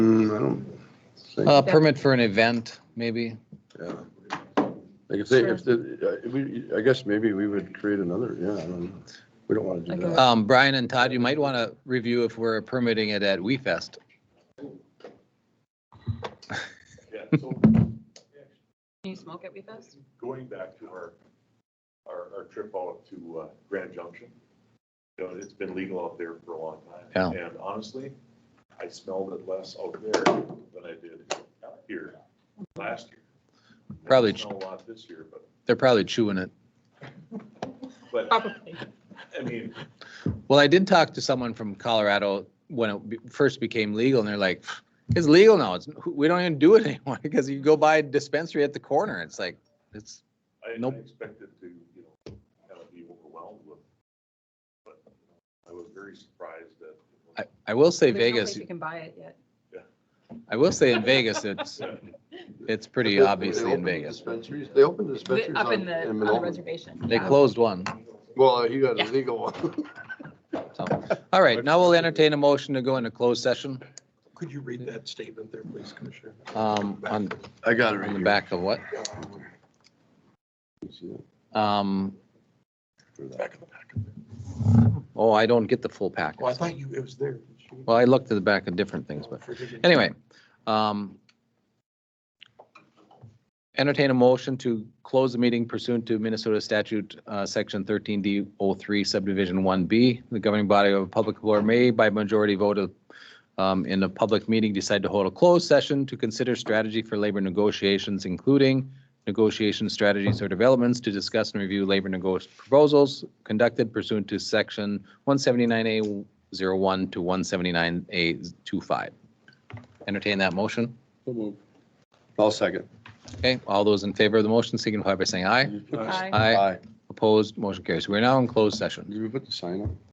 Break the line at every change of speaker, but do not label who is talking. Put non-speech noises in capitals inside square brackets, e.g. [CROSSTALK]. Mm, I don't think,
A Uh, permit for an event, maybe?
yeah. Like I say, if the, uh, we, I guess maybe we would create another, yeah, I don't, know. we don't want to do
Okay.
that.
Um, Brian and Todd, you might want to review if we're permitting it at We Fest.
Yeah, so
Can you smoke at WeFest?
going back to our, our, our trip out to uh, Grand Junction, you know, it's been legal out there for a long time.
Yeah.
And honestly, I smelled it less out there than I did out here last year. I
Probably-
Smell a lot this year, but,
They're probably chewing it.
but,
Probably.
I mean,
Well, I did talk to someone from Colorado when it be- first became legal and they're like, it's legal now. It's, we don't even do it [LAUGHS] anymore because you go buy a dispensary at the corner. It's like, it's,
I I
Nope.
expected to, you know, kind of be overwhelmed with, but I was very surprised that.
I, I will say
There's no place
Vegas,
You can buy it yet.
I will say in Vegas, it's, it's
[LAUGHS]
pretty
They- they
obviously in
opened
Vegas.
Dispensaries, they opened dispensaries
Up in
on,
the,
in
on the
Manolo.
reservation.
They
yeah.
closed one.
Well, he got
Yeah.
a legal one. [LAUGHS]
So, all right, now we'll entertain a motion to go into closed session,
Could you read that statement there, please, Commissioner?
um, on,
I got it
on the back of what? Um,
Back of the packet.
oh, I don't get the full
Well, I
package.
thought you, it was there.
Well, I looked at the back of different things, but
Forgive me.
anyway, um, entertain a motion to close the meeting pursuant to Minnesota statute, uh, section thirteen D O three subdivision one B. The governing body of a public board may by majority vote of, um, in a public meeting decide to hold a closed session to consider strategy for labor negotiations, including negotiation strategies or developments to discuss and review labor negos proposals conducted pursuant to section one seventy-nine A 01 to one seventy-nine A 25 Entertain that motion.
I'll second.
Okay, all those in favor of the motion signify by saying aye.
Aye.
Aye. Opposed, motion carries. We're now in closed session.
Did we put the sign up?